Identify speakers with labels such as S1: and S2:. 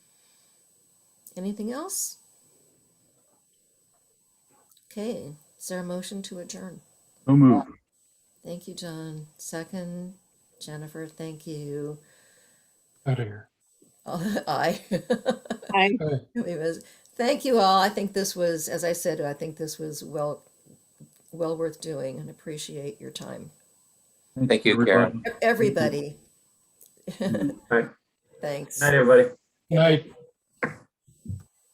S1: Anything else? Okay, is there a motion to adjourn?
S2: So moved.
S1: Thank you, John. Second, Jennifer, thank you.
S3: Out of here.
S1: Oh, Aye.
S4: Aye.
S3: Aye.
S1: It was- Thank you all. I think this was, as I said, I think this was well, well worth doing and appreciate your time.
S5: Thank you,
S2: everybody.
S5: Karen.
S1: Everybody.
S2: Right.
S1: Thanks.
S6: Night, everybody.
S3: Night.